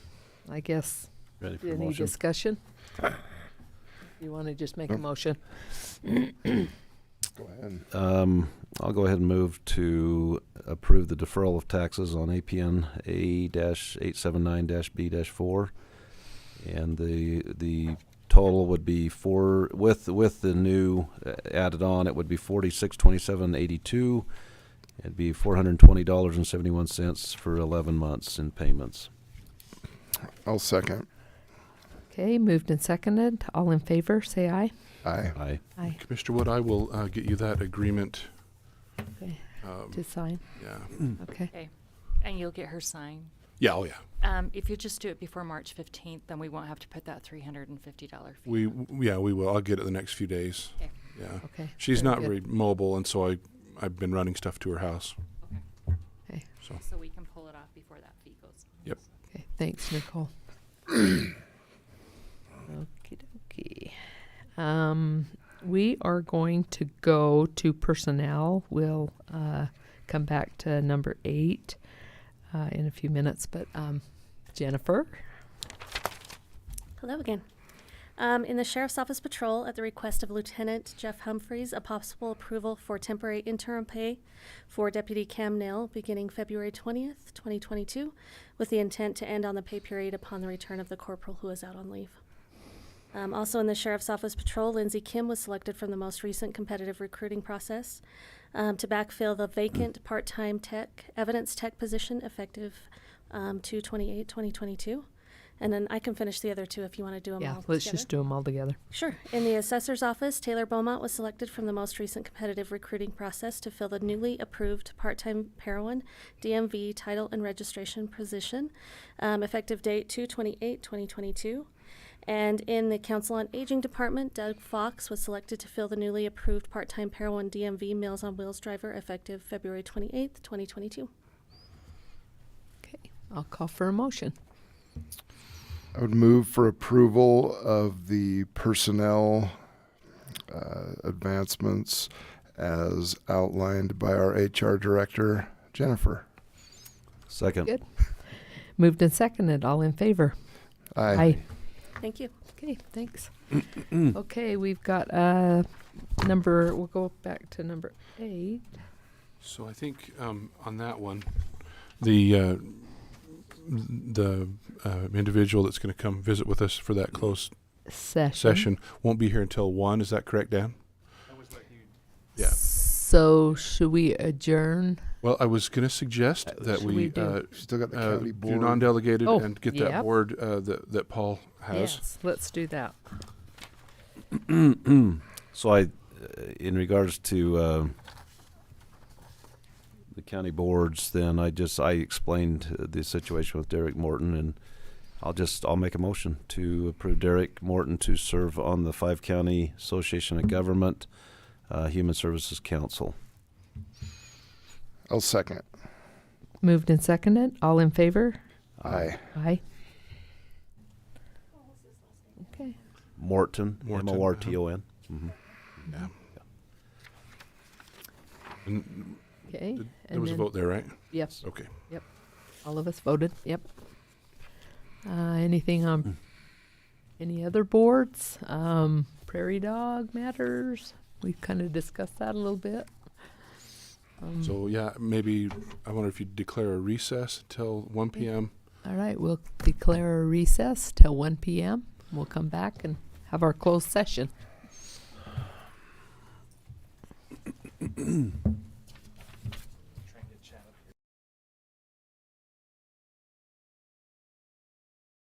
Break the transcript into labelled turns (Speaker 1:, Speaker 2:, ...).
Speaker 1: I guess.
Speaker 2: Ready for a
Speaker 1: Any
Speaker 2: motion?
Speaker 1: discussion? You want to just make a motion?
Speaker 3: Go ahead.
Speaker 2: Um, I'll go ahead and move to approve the deferral of taxes on APN A-879-B-4. And the, the total would be four, with, with the new uh, added on, it would be forty-six twenty-seven eighty-two. It'd be four hundred and twenty dollars and seventy-one cents for eleven months in payments.
Speaker 3: I'll second.
Speaker 1: Okay, moved and seconded. All in favor, say aye.
Speaker 3: Aye.
Speaker 2: Aye.
Speaker 1: Aye.
Speaker 4: Commissioner Wood, I will uh, get you that agreement.
Speaker 1: Okay.
Speaker 4: um,
Speaker 1: To sign,
Speaker 4: Yeah,
Speaker 1: okay.
Speaker 5: And you'll get her signed.
Speaker 4: yeah, oh yeah.
Speaker 5: Um, if you just do it before March fifteenth, then we won't have to put that three hundred and fifty dollar fee.
Speaker 4: We,
Speaker 5: on.
Speaker 4: w- yeah, we will. I'll get it the next few days.
Speaker 5: Okay.
Speaker 4: Yeah.
Speaker 1: Okay.
Speaker 4: She's
Speaker 1: very
Speaker 4: not
Speaker 1: good.
Speaker 4: very mobile, and so I, I've been running stuff to her house.
Speaker 1: Okay.
Speaker 4: So,
Speaker 5: So we can pull it off before that fee goes.
Speaker 4: Yep.
Speaker 1: Okay, thanks, Nicole. Okie dokie. Um, we are going to go to personnel. We'll, uh, come back to number eight, uh, in a few minutes, but, um, Jennifer?
Speaker 6: Hello again. Um, in the Sheriff's Office Patrol, at the request of Lieutenant Jeff Humphreys, a possible approval for temporary interim pay for Deputy Cam Nail beginning February 20th, 2022, with the intent to end on the pay period upon the return of the corporal who is out on leave. Um, also in the Sheriff's Office Patrol, Lindsey Kim was selected from the most recent competitive recruiting process um, to backfill the vacant part time tech, evidence tech position effective um, 2 2022. And then I can finish the other two if you want to do them
Speaker 1: Yeah,
Speaker 6: all.
Speaker 1: let's
Speaker 6: together.
Speaker 1: just do them all together.
Speaker 6: Sure. In the assessor's office, Taylor Beaumont was selected from the most recent competitive recruiting process to fill the newly approved part-time Parowan DMV title and registration position, um, effective date 2/28/2022. And in the Council on Aging Department, Doug Fox was selected to fill the newly approved part-time Parowan DMV Meals on Wheels driver, effective February 28th, 2022.
Speaker 1: Okay, I'll call for a motion.
Speaker 3: I would move for approval of the personnel uh, advancements as outlined by our HR director, Jennifer.
Speaker 2: Second.
Speaker 1: Good. Moved and seconded, all in favor? Aye.
Speaker 6: Thank you.
Speaker 1: Okay, thanks. Okay, we've got, uh, number, we'll go back to number eight.
Speaker 4: so I think um, on that one, the uh, the uh, individual that's going to come visit with us for that closed
Speaker 1: Session.
Speaker 4: session won't be here until one. Is that correct, Dan? Yeah.
Speaker 1: So should we adjourn?
Speaker 4: Well, I was going to suggest that
Speaker 1: should we
Speaker 4: we
Speaker 1: do?
Speaker 4: uh,
Speaker 3: Still got the
Speaker 4: uh,
Speaker 3: county
Speaker 4: do
Speaker 3: board.
Speaker 4: non-delegated
Speaker 1: Oh,
Speaker 4: and get
Speaker 1: yep.
Speaker 4: that board uh, that that Paul has.
Speaker 1: Yes, let's do that.
Speaker 2: So I, uh, in regards to uh, the county boards, then I just, I explained uh, the situation with Derek Morton, and I'll just, I'll make a motion to approve Derek Morton to serve on the Five County Association of Government uh, Human Services Council.
Speaker 3: I'll second.
Speaker 1: Moved and seconded. All in favor?
Speaker 3: Aye.
Speaker 1: Aye. Okay.
Speaker 2: Morton,
Speaker 4: Morton, uh-huh.
Speaker 2: M-O-R-T-O-N.
Speaker 4: Yeah. And
Speaker 1: Okay.
Speaker 4: th- there was a vote there, right?
Speaker 1: Yes,
Speaker 4: Okay.
Speaker 1: all of us voted. Yep. Uh, anything on any other boards? Um, prairie dog matters. We kind of discussed that a little bit. Um,
Speaker 4: So yeah, maybe I wonder if you declare a recess till 1 p.m.
Speaker 1: All right, we'll declare a recess till one PM. We'll come back and have our closed session.